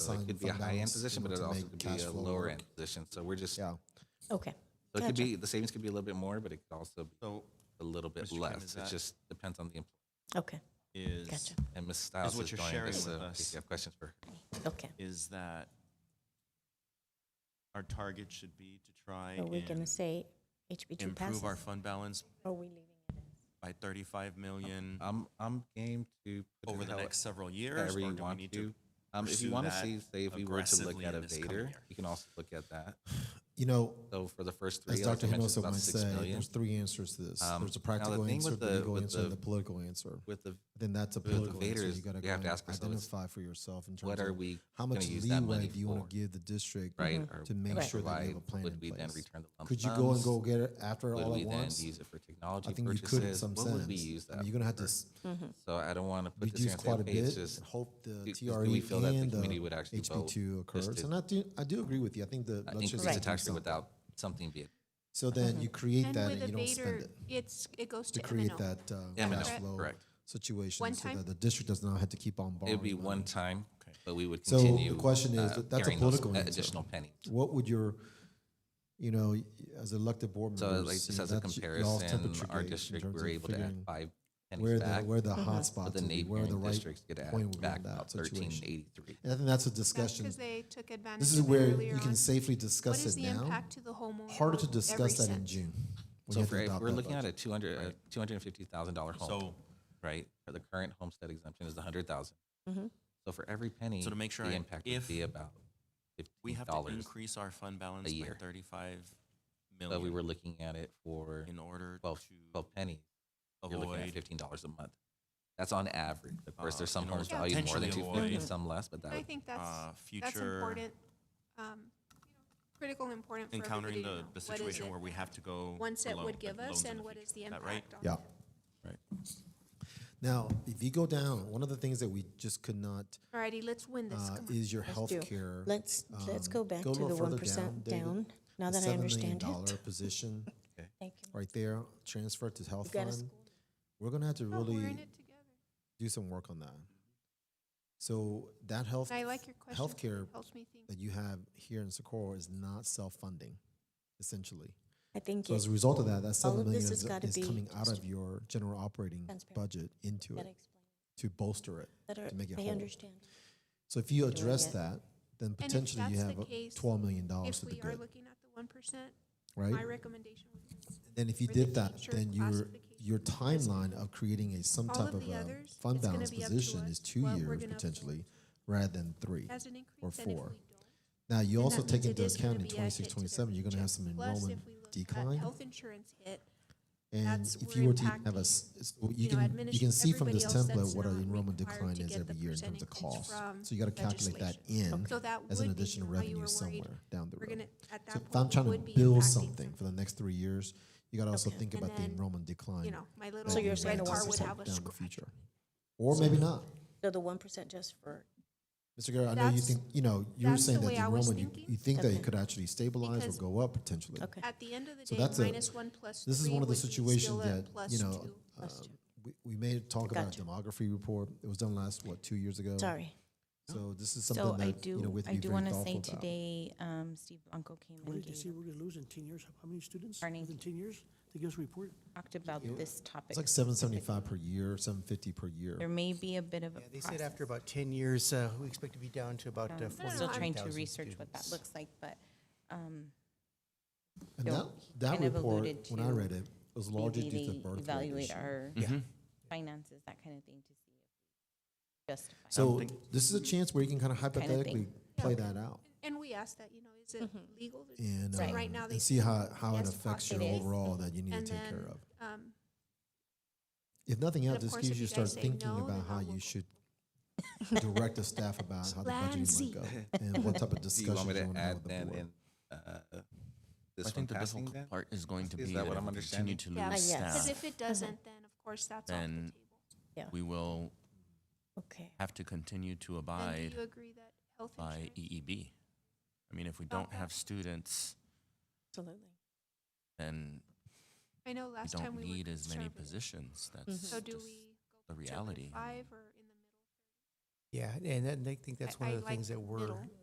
So it selling could be a fund high end balance, position, you know, but it to also make could cash be a flow lower work. end position. So we're just, so Yeah. Okay. it could Gotcha. be, the savings could be a little bit more, but it could also be So a little bit Mr. Kim, less. is It that- just depends on the employee. Okay. is Gotcha. And Ms. Styles what is you're joining sharing us, with so us. if you have questions for her. Okay. is that our target should be to try Are we going to and say HB2 passes? improve our fund balance Or are we leaving it? by 35 million I'm, Um, I'm game to. put it over the how- next several years, however or you do we want need to? to. Um, if you pursue want to that see, say, if we were to look aggressively at in a this coming Vader, year? you can also look at that. You know, So for the first three, as I was Dr. mentioned, it's Hinosa about might six say, million. there's three answers to this. Um, there's a now, the practical thing answer, with the, the- legal with answer, and the- the political answer. With the, Then that's a with the political Vader answer. is You got to we go have to and ask ourselves, identify for yourself in terms what are of we how gonna much use that leeway money do you want for? to give the district Mm-hmm. right? or to make what sure that you have provide? a plan Would in we then place? return the lump Could you go and sums? go get it after Would all we at then once? use it for I technology think you could in purchases? some What sense. would we use I that? mean, you're going to have to s- So I don't want to put this here reduce and say, quite a okay, it's bit just and hope the do- do TRE we feel that the and the committee would actually vote HB2 just occurs. to- And I do, I do agree with you. I think the uh, legislature increase the should do tax rate something. without something being. So then you create Mm-hmm. And that with and a you don't Vader, spend it. it's, it goes to to create M&O. that uh, M&O, cash flow correct. situation One so time? that the district does not have to keep on borrowing. It'd be one money. time, but we would Oh, So the continue. question is, uh, that's a carrying those political a- answer. Additional penny. What would your, you know, y- as elected board So members, like you just know, as a that's y- y'all's comparison, temperature our gauge in district, terms we're of able to add figuring five where pennies the back. where the hot But spots the would be, where the neighboring right districts get point would add be in back that about thirteen situation. eighty-three. And I think that's a That's discussion. because they took advantage This is of it where earlier you can on. safely What discuss is it the now. impact to the homeowner? Harder to Every discuss that in cent. June. when you So have to for, if adopt we're that looking at budget. a two hundred, uh two hundred and fifty thousand dollar home, So- right? For the current homestead exemption is a hundred thousand. Mm-hmm. So for every penny, So to make sure the I- impact if would be about We fifteen have to dollars. increase our fund balance by year. 35 So million we were looking at it for in order 12 to 12 pennies. You're looking at avoid fifteen dollars a month. That's on average. Of course, Uh, there's some in order homes to valued more than two potentially fifty, avoid- some less, but that I would think uh, that's, that's future important, um, you know, critical, and important for everybody encountering to know. the, What the is situation it where we have to go One set below, would like give loans us, in and what future. is the Is that impact right? on Yeah. it? Right. Now, if you go down, one of the things that we just could not Alrighty, let's win this. uh, Come on. is your Let's do- health care. Let's, let's go back to Um, a the little further 1% David. down, now The that I $7 million understand dollar it. position Thank you. right there, transfer to health got a fund. We're gonna have to Oh, We're in really it together. do some work on that. So that health, And I like your question. healthcare Helps me think. that you have here in Socorro is not self-funding, essentially. I think So as it a result of that, that All seven of million this is, has gotta is be coming out of your general operating transparent. budget into that it explains to bolster it, better. to make it I whole. understand. So if you address it. that, then if potentially you that's have the uh, case, twelve million dollars If to the we are good, looking at the one percent, right? my recommendation would be Then if you for the did that, future then your, your timeline classification. of creating a, some All type of of the a others, fund it's gonna balance be up to position us is two what we're years gonna potentially, rather than three. as an Or increase, and if we four. don't. Now, you then also that means take into it is gonna account in be a hit to 26, their 27, you're gonna have budget. some Plus, if enrollment we look at decline. Health insurance hit, And that's if where you were to impacting, have a, s- it's- well, you you know, can, you can see from this everybody else that's template what our not enrollment required decline to is get every the year in terms of percentage cost. from So you gotta calculate that in so that as an would be additional why you revenue were worried. somewhere down the We're road. gonna- at that So if point, I'm it trying would to be build impacting something for the next three years, you gotta also Okay. think And about the then, enrollment decline. You know, my that little So you you're might saying red the car ones would anticipate have a down the scratch. future. Or maybe not. So the 1% just for, Mr. Guerrero, I know you That's- think, you know, you were that's the saying that way the I was enrollment, you, thinking. you think that it Okay. could actually stabilize or Because- go up potentially. okay. At the end of the So day, that's a- minus one plus three This is one of the would be situations still a that, plus you know, two. uh, Plus two. we, we may talk about Gotcha. demography report. It was done last, what, two years ago? Sorry. So this is So something I that, you know, do, with I be do very want to say thoughtful about. today, um, Steve Blanco came What and did you say gave, we're gonna lose in ten years? How many students? Earning. Within ten years? They give us a report? talked about this topic. It's like seven seventy-five per year, seven fifty per year. There may be a bit of a Yeah, they said process. after about 10 years, uh, we expect to be down to about um, uh, We're still trying 400,000 to research what that students. looks like, but, um, And that, Don't- he that kind of report, alluded when I to read it, was we largely due to really the birth rate evaluate issue. our Mm-hmm. Yeah. finances, that kind of thing to see if we justify. it. So think- this is a chance where you can kind of hypothetically play that out And we asked that, you know, is Mm-hmm. it legal? to- and, so um, right now they and see say how, how it yes, affects your it is. overall that you need And to take care then, of. um, If nothing And else, of this course, gives if you you start guys say thinking no, about then how I you will- should direct the staff about how the budget might Lancy. go and what type of Do you discussions want me you to want to have add with the then board. in, uh, I this one think the passing difficult then? part is going to Is be that that what if I'm we continue understanding? to Yeah, lose yes. because staff, if it doesn't, then of course that's off the Then- table. Yeah. we will Okay. have to continue to And abide do you agree that health by e, insurance? EEB. I mean, if we About don't have that. students, Absolutely. then I know we last time don't we were. need as many conservative. positions. Mhm. That's So do just we the go to reality. five or in the middle? Yeah, and I think I- that's one I of the like things that we're middle.